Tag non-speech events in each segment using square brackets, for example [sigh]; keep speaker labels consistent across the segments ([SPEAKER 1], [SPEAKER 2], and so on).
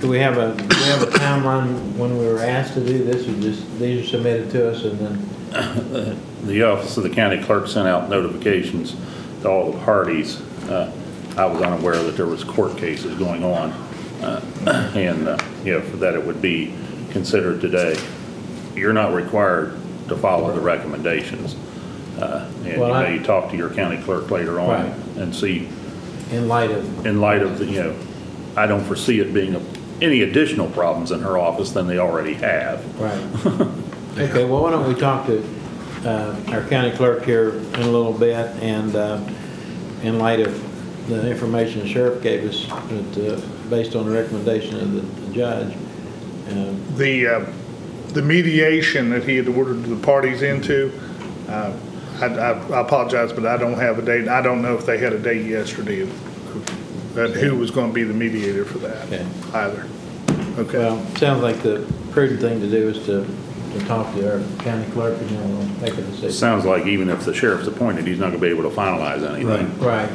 [SPEAKER 1] Do we have a, do we have a timeline when we were asked to do this, or just, these are submitted to us and then?
[SPEAKER 2] The office of the county clerk sent out notifications to all the parties. Uh, I was unaware that there was court cases going on, uh, [clears throat] and, uh, you know, that it would be considered today. You're not required to follow the recommendations. Uh, And you
[SPEAKER 1] Well, I-
[SPEAKER 2] may talk to your county clerk later on
[SPEAKER 1] Right.
[SPEAKER 2] and see,
[SPEAKER 1] In light of,
[SPEAKER 2] in light of, the you know, I don't foresee it being any additional problems in her office than they already have.
[SPEAKER 1] right. [laughs] Okay, well, why don't we talk to uh, our county clerk here in a little bit, and uh, in light of the information the sheriff gave us, that, uh, based on the recommendation of the- the judge, um,
[SPEAKER 3] The, uh, the mediation that he had ordered the parties into, uh, I I- I apologize, but I don't have a date. I don't know if they had a date yesterday of- of who was going to be the mediator for that
[SPEAKER 1] Okay.
[SPEAKER 3] either. Okay.
[SPEAKER 1] Well, sounds like the prudent thing to do is to, to talk to our county clerk and then we'll make a
[SPEAKER 2] It
[SPEAKER 1] decision.
[SPEAKER 2] sounds like even if the sheriff's appointed, he's not gonna be able to finalize anything.
[SPEAKER 1] Right.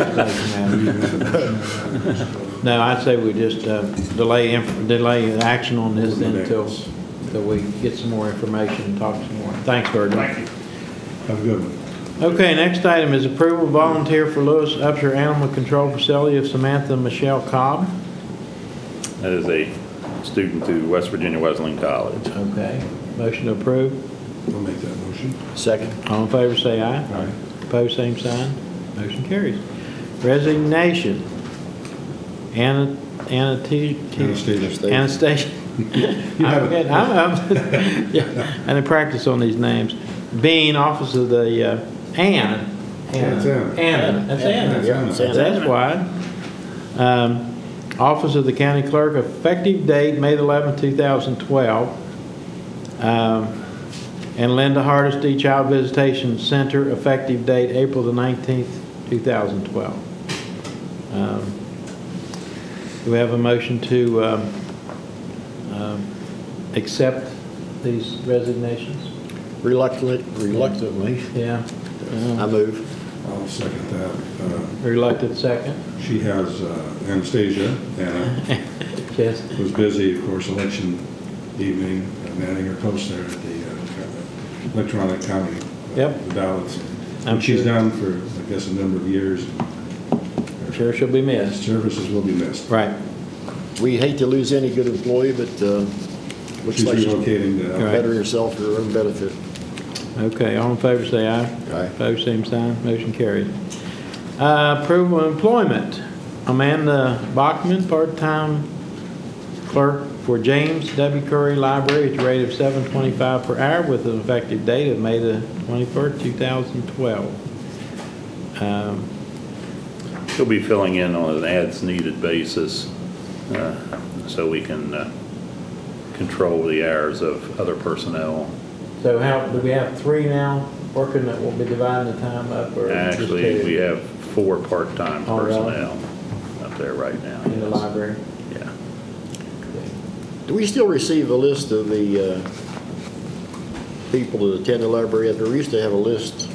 [SPEAKER 1] Oh, no. [laughs] No, I'd say we just uh, delay, inf- delay action on this then until, until we get some more information and talk some more. Thanks, Virgil.
[SPEAKER 3] Thank you.
[SPEAKER 4] Have a good one.
[SPEAKER 1] Okay, next item is approval volunteer for Lewis Upshur Animal Control Facility of Samantha Michelle Cobb.
[SPEAKER 2] That is a student through West Virginia Wesleyan College.
[SPEAKER 1] Okay, motion to approve.
[SPEAKER 4] I'll make that motion.
[SPEAKER 1] Second. All in favor, say aye.
[SPEAKER 4] Aye.
[SPEAKER 1] Opposed, same sign. Motion carries. Resignation. Anna, Anna T. T-
[SPEAKER 4] Anastasia.
[SPEAKER 1] Anastasia.
[SPEAKER 4] [laughs] You have
[SPEAKER 1] I'm
[SPEAKER 4] it.
[SPEAKER 1] good. I'm, I'm, [laughs] yeah, I didn't practice on these names. Bean, office of the, uh, Anna.
[SPEAKER 4] That's Anna.
[SPEAKER 1] Anna, that's Anna.
[SPEAKER 4] That's Anna.
[SPEAKER 1] So That's why. Um, Office of the County Clerk, effective date, May 11, 2012. Um, And Linda Hardesty, Child Visitation Center, effective date, April the 19th, 2012. Um, Do we have a motion to um, um, accept these resignations?
[SPEAKER 5] Reluctantly, reluctantly,
[SPEAKER 1] Yeah.
[SPEAKER 5] I
[SPEAKER 1] Uh,
[SPEAKER 5] move.
[SPEAKER 4] I'll second that. Uh,
[SPEAKER 1] Reluctant second.
[SPEAKER 4] She has uh, Anastasia,
[SPEAKER 1] [laughs]
[SPEAKER 4] Anna,
[SPEAKER 1] Yes.
[SPEAKER 4] was busy, of course, election evening, and manning her post there at the uh, electronic county. uh,
[SPEAKER 1] Yep.
[SPEAKER 4] The ballots.
[SPEAKER 1] I'm
[SPEAKER 4] And she's
[SPEAKER 1] sure.
[SPEAKER 4] done for, I guess, a number of years.
[SPEAKER 1] Sure she'll be
[SPEAKER 4] Her
[SPEAKER 1] missed.
[SPEAKER 4] Services will be missed.
[SPEAKER 1] Right.
[SPEAKER 5] We hate to lose any good employee, but uh, looks
[SPEAKER 4] She's
[SPEAKER 5] like she's
[SPEAKER 4] relocating to.
[SPEAKER 1] Right.
[SPEAKER 5] bettering herself for her own benefit.
[SPEAKER 1] Okay, all in favor, say aye.
[SPEAKER 5] Aye.
[SPEAKER 1] Opposed, same sign, motion carried. Uh, Approval of employment, Amanda Bachman, part-time clerk for James W. Curry Library at the rate of 7.25 per hour with an effective date of May the 21st, 2012. Um,
[SPEAKER 2] He'll be filling in on an as-needed basis, uh, so we can uh, control the hours of other personnel.
[SPEAKER 1] So how, do we have three now working that will be dividing the time up, or just
[SPEAKER 2] Actually, we
[SPEAKER 1] two
[SPEAKER 2] have four part-time
[SPEAKER 1] Oh, really?
[SPEAKER 2] personnel up there right now.
[SPEAKER 1] in the
[SPEAKER 2] yes.
[SPEAKER 1] library?
[SPEAKER 2] Yeah.
[SPEAKER 5] Do we still receive a list of the uh, people that attend the library? And We used to have a list.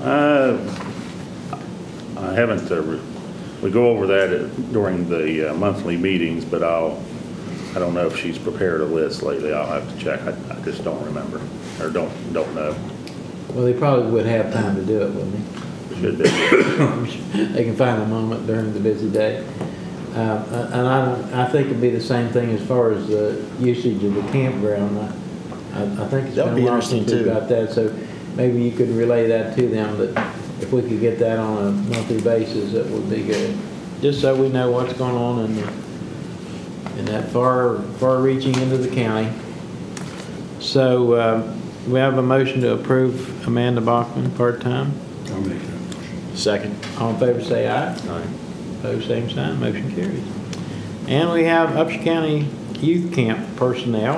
[SPEAKER 2] Uh, I haven't, uh, re- we go over that during the uh, monthly meetings, but I'll, I don't know if she's prepared a list lately. I'll have to check. I I just don't remember, or don't, don't know.
[SPEAKER 1] Well, they probably would have time to do it, wouldn't they?
[SPEAKER 2] Should be.
[SPEAKER 1] [laughs] they can find a moment during the busy day. Uh, And I, I think it'd be the same thing as far as the usage of the campground. I- I, I think it's been
[SPEAKER 5] That would
[SPEAKER 1] a
[SPEAKER 5] be
[SPEAKER 1] lot since
[SPEAKER 5] interesting,
[SPEAKER 1] we've
[SPEAKER 5] too.
[SPEAKER 1] got that, so maybe you could relay that to them, that if we could get that on a monthly basis, that would be good. Just so we know what's going on in, the- in that far, far reaching into the county. So uh, we have a motion to approve Amanda Bachman, part-time.
[SPEAKER 4] I'll make that motion.
[SPEAKER 5] Second.
[SPEAKER 1] All in favor, say aye.
[SPEAKER 5] Aye.
[SPEAKER 1] Opposed, same sign, motion carries. And we have Upshur County Youth Camp personnel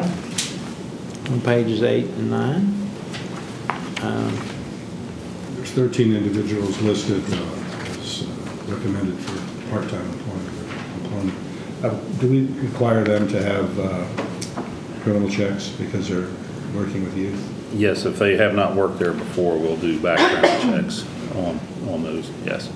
[SPEAKER 1] on pages eight and nine. Um,
[SPEAKER 4] There's 13 individuals listed uh, as uh, recommended for part-time employment- employment. Uh, Do we require them to have uh, criminal checks because they're working with youth?
[SPEAKER 2] Yes, if they have not worked there before, we'll do background checks on, on those, yes.